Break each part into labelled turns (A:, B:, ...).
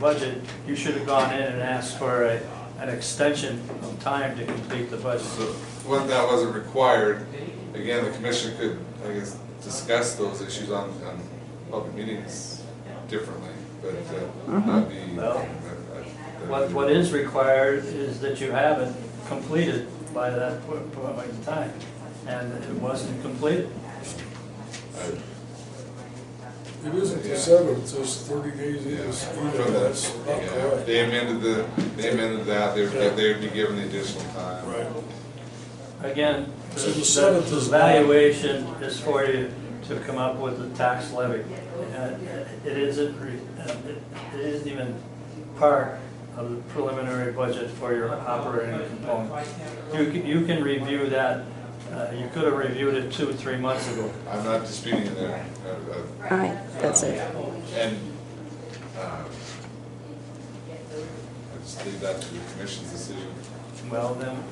A: budget, you should have gone in and asked for a, an extension of time to complete the budget.
B: So when that wasn't required, again, the commission could, I guess, discuss those issues on, on public meetings differently, but uh,
C: Mm-hmm.
B: that'd be.
A: Well,
B: that'd be-
A: What, what is required is that you have it completed by that po- point in time, and it wasn't completed.
B: I-
D: It isn't the seventh, it says thirty days
B: Yeah,
D: is
B: from
D: either, that's
B: the-
D: not
B: yeah,
D: correct.
B: They amended the, they amended that, they
D: Yeah.
B: would, they would be given the additional time.
D: Right.
A: Again,
D: So the
A: the
D: seventh
A: the
D: is-
A: valuation is for you to come up with the tax levy. And It isn't, re- and it it isn't even part of the preliminary budget for your operating component. You can, you can review that, uh, you could have reviewed it two, three months ago.
B: I'm not disputing that. uh, uh,
C: Aye, that's it.
B: And, uh, I just leave that to the commission's decision.
A: Well, then,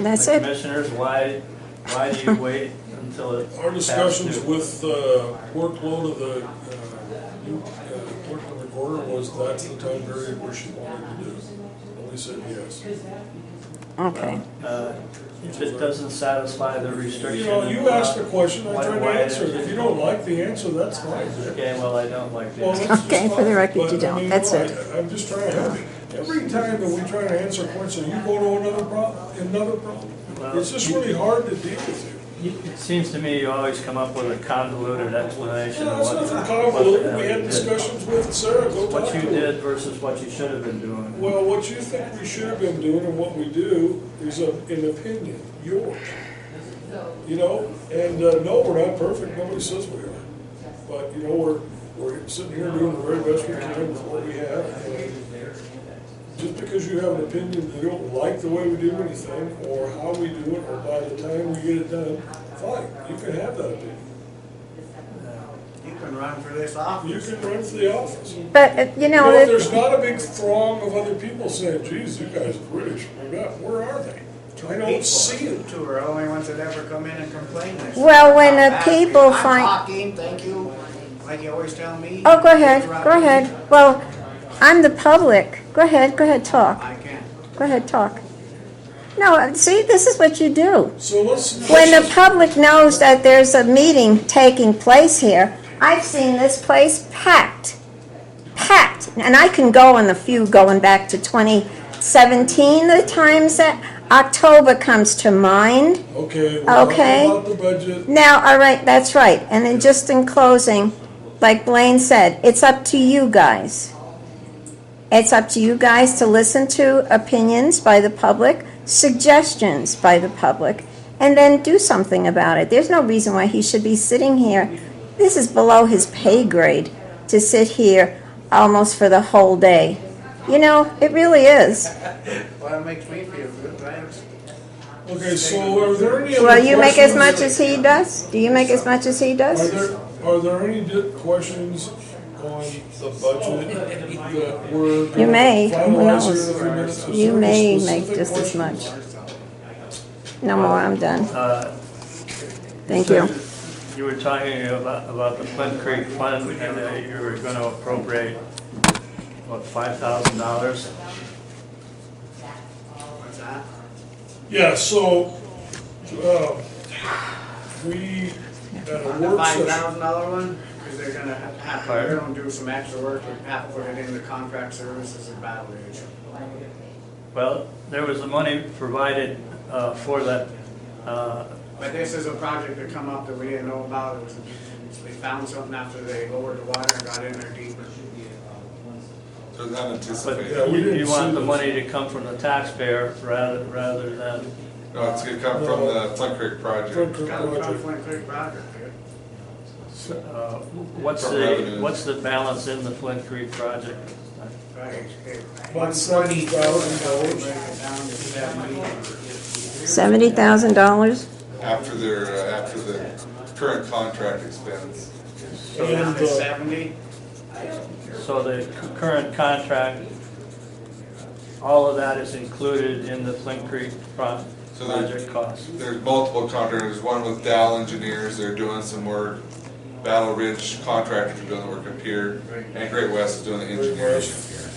C: That's
A: the
C: it.
A: commissioners, why, why do you wait until it?
D: Our discussions with uh, workload of the uh, new uh, clerk and recorder was that's the time period where she wanted to do. it. And we said yes.
C: Okay.
A: Uh, If it doesn't satisfy the restriction.
D: You know, you
A: uh,
D: asked a question, I
A: why-
D: tried to
A: why
D: answer it.
A: is
D: If you don't like the answer, that's fine.
A: Okay, well, I don't like
D: Well,
A: that.
D: that's just
C: Okay, for the
D: fine.
C: record, you
D: But, I
C: don't.
D: mean,
C: That's
D: no, I-
C: it.
D: I'm just trying to help you. Every time that we try to answer questions, you go to another problem, another problem.
A: Well,
D: It's just really hard to deal with you.
A: You- It seems to me you always come up with a convoluted explanation
D: Yeah,
A: of
D: that's
A: what.
D: nothing
A: what
D: convoluted,
A: the
D: we
A: hell
D: had
A: you did.
D: discussions with Sarah, go talk
A: What
D: to
A: you
D: her.
A: did versus what you should have been doing.
D: Well, what you think we should have been doing and what we do is a- an opinion, yours. You know, and, uh, no, we're not perfect, nobody says we are. But, you know, we're, we're sitting here doing the very best we can with what we have. and Just because you have an opinion, you don't like the way we do anything, or how we do it, or by the time we get it done, fine, you can have that opinion.
E: You can run for this office.
D: You can run for the office.
C: But, uh, you know,
D: You know,
C: that-
D: there's not a big throng of other people saying, geez, you guys are really screwed up. Where are they? I
E: People,
D: don't see
E: You
D: it.
E: two are the only ones that ever come in and complain. this.
C: Well, when the
E: How bad-
C: people
E: I'm
C: find-
E: talking, thank you, like you always tell me.
C: oh, go ahead, go
E: Interrupt me.
C: ahead. Well, I'm the public. Go ahead, go ahead, talk.
E: I can't.
C: Go ahead, talk. No, uh, see, this is what you do.
D: So let's.
C: When the public knows that there's a meeting taking place here, I've seen this place packed. Packed. And I can go on the few going back to 2017, the times that October comes to mind.
D: Okay, we're talking
C: Okay.
D: about the budget.
C: Now, all right, that's right. And then just in closing, like Blaine said, it's up to you guys. It's up to you guys to listen to opinions by the public, suggestions by the public, and then do something about it. There's no reason why he should be sitting here. This is below his pay grade to sit here almost for the whole day. You know, it really is.
E: Well, it makes me feel good, thanks.
D: Okay, so are there any other
C: Well, you make as much
D: questions-
C: as he does? Do you make as much as he
D: Are
C: does?
D: there, are there any di- questions on the budget that were?
C: You may, who
D: finalized here in a
C: knows?
D: few minutes? Is
C: You
D: there any
C: may make
D: specific
C: just as
D: questions?
C: much. No more, I'm done.
A: Uh,
C: Thank
A: So
C: you.
A: You were talking about, about the Flint Creek Fund, and that you were gonna appropriate, what, five thousand dollars?
E: What's that?
D: Yeah, so, uh, we had a
E: The
D: work
E: five
D: session.
E: thousand dollar one, because they're gonna have, half-
A: Fire.
E: they're gonna do some extra work, we have to put it in the contract services and battle age.
A: Well, there was the money provided, uh, for that, uh,
E: But this is a project that come up that we didn't know about, it was, we found something after they lowered the water and got in there deeper.
B: So it's
A: but
B: unanticipated.
D: Yeah, we
A: you
D: didn't
A: you want
D: see
A: the
D: this.
A: money to come from the taxpayer rather, rather than,
B: No, Oh, it's gonna come from the Flint Creek
D: Flint
B: project.
D: Creek
E: Got a
D: project.
E: conflict creek project here.
A: uh, what's
B: From
A: the,
B: revenues.
A: what's the balance in the Flint Creek project?
E: Right.
D: About seventy thousand dollars.
C: Seventy thousand dollars?
B: After their, uh, after the current contract expense.
E: So down
D: uh,
E: to seventy,
A: So the c- current contract, all of that is included in the Flint Creek pro-
B: So there-
A: project cost?
B: There's multiple contractors, one with Dow Engineers, they're doing some work. Battle Ridge Contractors are doing the work up here, and Great West is doing the engineering up here.